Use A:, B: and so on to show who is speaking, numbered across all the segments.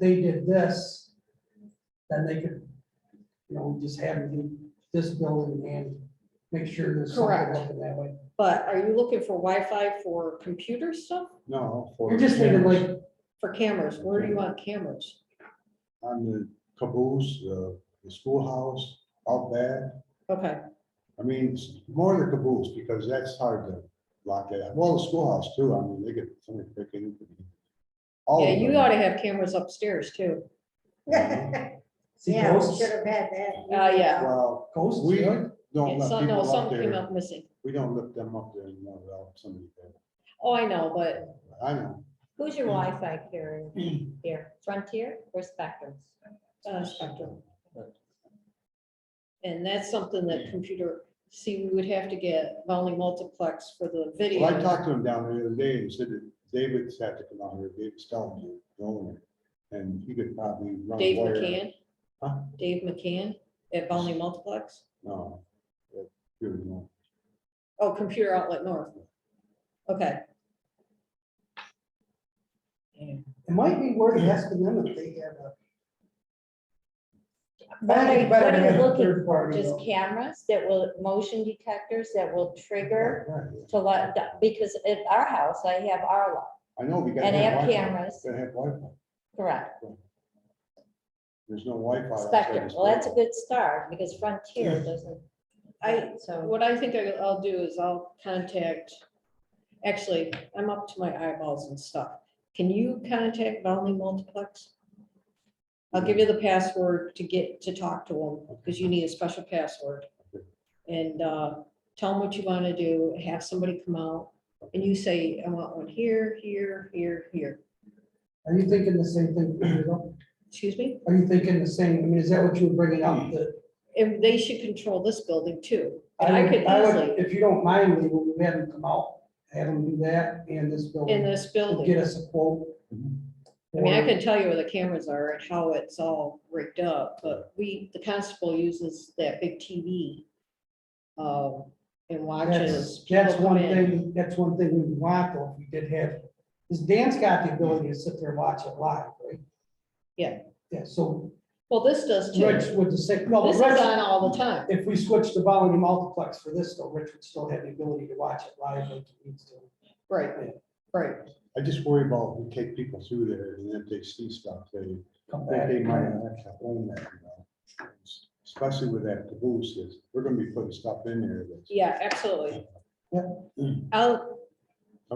A: they did this, then they could, you know, just have it in this building and make sure there's something
B: Correct.
A: open that way.
B: But are you looking for Wi-Fi for computer stuff,
C: No. for
A: You're just thinking
C: cameras
A: like,
B: for cameras? Where do you want cameras?
C: On the caboose, the, the schoolhouse, out there.
B: Okay,
C: I mean, it's more the caboose because that's hard to lock it up. Well, the schoolhouse too. I mean, they could, somebody pick it. up. All
B: yeah,
C: of
B: you
C: them.
B: ought to have cameras upstairs too.
A: see
D: Yeah, we
A: ghosts,
D: should have had that.
B: Uh, yeah.
C: Well,
A: ghosts,
C: we
A: yeah.
C: don't let
B: Some, no,
C: people up
B: some came
C: there.
B: up missing.
C: We don't lift them up there anymore without somebody there.
B: Oh, I know, but
C: I know.
E: Who's
C: Mm.
E: your Wi-Fi carrier here? Frontier or Spectrum?
B: uh, Spectrum. And that's something that computer, see, we would have to get Volley Multiplex for the video.
C: Well, I talked to him down there the other day and said that David's had to come out here, David's telling you, the owner, and he could probably run.
B: Dave
C: wire.
B: McCann.
C: Huh?
B: Dave McCann at Volley Multiplex.
C: No. that- here we go.
B: Oh, Computer Outlet North. Okay,
A: It might be worth asking them if they have a.
E: What are you- what are you looking for?
A: party
E: Just
A: though.
E: cameras that will, motion detectors that will trigger
C: Right, yeah.
E: to let, because at our house, I have our lot
C: I know, we gotta
E: and I
C: have
E: have
C: Wi-Fi.
E: cameras,
C: Gotta have Wi-Fi.
E: correct.
C: There's no Wi-Fi. outside
E: Spectrum,
C: this
E: well, that's a
C: building.
E: good start because Frontier doesn't.
B: I-
E: So,
B: what I think I- I'll do is I'll contact, actually, I'm up to my eyeballs and stuff. Can you contact Volley Multiplex? I'll give you the password to get, to talk to them, because you need a special password. And uh, tell them what you want to do, have somebody come out, and you say, I want one here, here, here, here.
A: Are you thinking the same thing? Rita?
B: Excuse me?
A: Are you thinking the same, I mean, is that what you were bringing up? that-
B: And they should control this building too. And I could
A: would- I would-
B: easily,
A: If you don't mind, we will have them come out, have them do that and this
B: in
A: building,
B: this
A: and
B: building.
A: get us a quote.
C: Mhm.
B: I mean, I
A: for-
B: can tell you where the cameras are and how it's all rigged up, but we, the constable uses that big TV. Um, and watches.
A: That's, that's
B: people
A: one
B: come in.
A: thing, that's one thing we want though, if we did have, because Dan's got the ability to sit there and watch it live, right?
B: Yeah.
A: Yeah, so
B: Well, this does too.
A: Rich
B: This
A: would just say, no, but
B: is
A: Rich,
B: on all the time.
A: if we switched to volume multiplex for this though, Rich would still have the ability to watch it live like he needs to.
B: Right, right.
C: I just worry about, we take people through there and if they see stuff, they,
A: Come
C: think
A: back.
C: they might have to own that, you know. Especially with that caboose, is, we're gonna be putting stuff in there that's. Mm,
B: Yeah, absolutely.
A: Yeah.
B: I'll,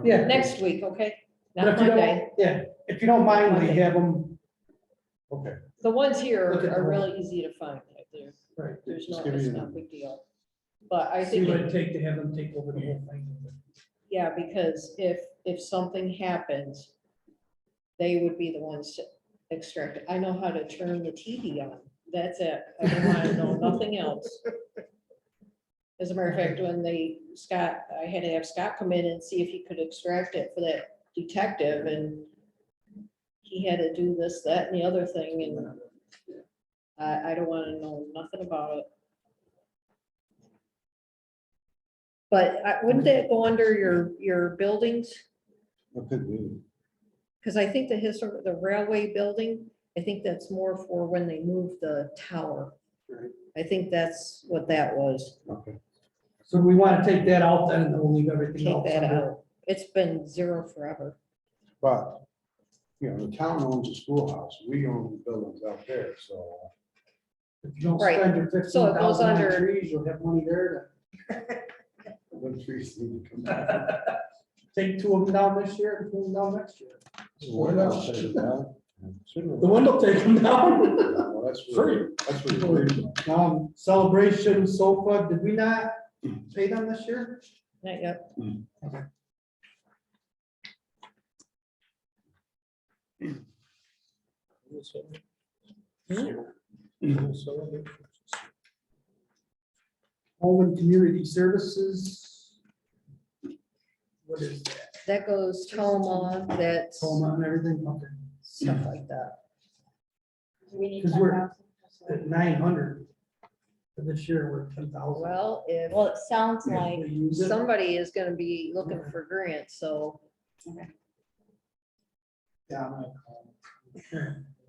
A: Yeah.
B: next week, okay?
A: But
B: Not
A: if you
B: Monday.
A: don't, yeah, if you don't mind, we
B: Monday.
A: have them,
C: Okay.
B: The ones here
A: Look at
B: are
A: the-
B: really easy to find. Like, They're
A: right,
B: There's
C: Just
B: no,
C: give me
B: it's
C: the-
B: not a big deal. But I
A: see
B: think,
A: what it
B: it-
A: take to have them take over the whole thing.
B: yeah, because if, if something happens, they would be the ones to extract. I know how to turn the TV on. That's it. I don't want to know nothing else. As a matter of fact, when they, Scott, I had to have Scott come in and see if he could extract it for that detective and he had to do this, that and the other thing and I, I don't want to know nothing about it. But I- wouldn't that go under your, your buildings?
C: It could be.
B: Because I think the history, the railway building, I think that's more for when they moved the tower.
A: Right.
B: I think that's what that was.
C: Okay.
A: So we want to take that out then, and then we'll leave everything
B: Take
A: else.
B: that
A: under-
B: out. It's been zero forever.
C: But, you know, the town owns the schoolhouse, we own the buildings out there, so.
A: If you don't
B: Right.
A: spend your
B: So
A: fifteen
B: it goes
A: thousand on
B: under-
A: trees, you'll have money there
C: Them uh, trees need to come down.
A: to take two of them down this year and two of them down next year.
C: What else? Well,
A: The window take them down.
C: that's really- that's really weird.
A: Um, celebration sofa, did we not pay them this year?
B: Not yet.
A: Home and community services. What is that?
B: That goes Toma, that's
A: Home and everything, okay,
B: stuff like that.
D: We need
A: Because we're-
D: 10,000.
A: at nine hundred. For this year, we're ten thousand.
B: Well, if
E: well, it sounds like
A: Use it.
B: somebody is gonna be looking for grants, so
A: Yeah, I'm gonna call.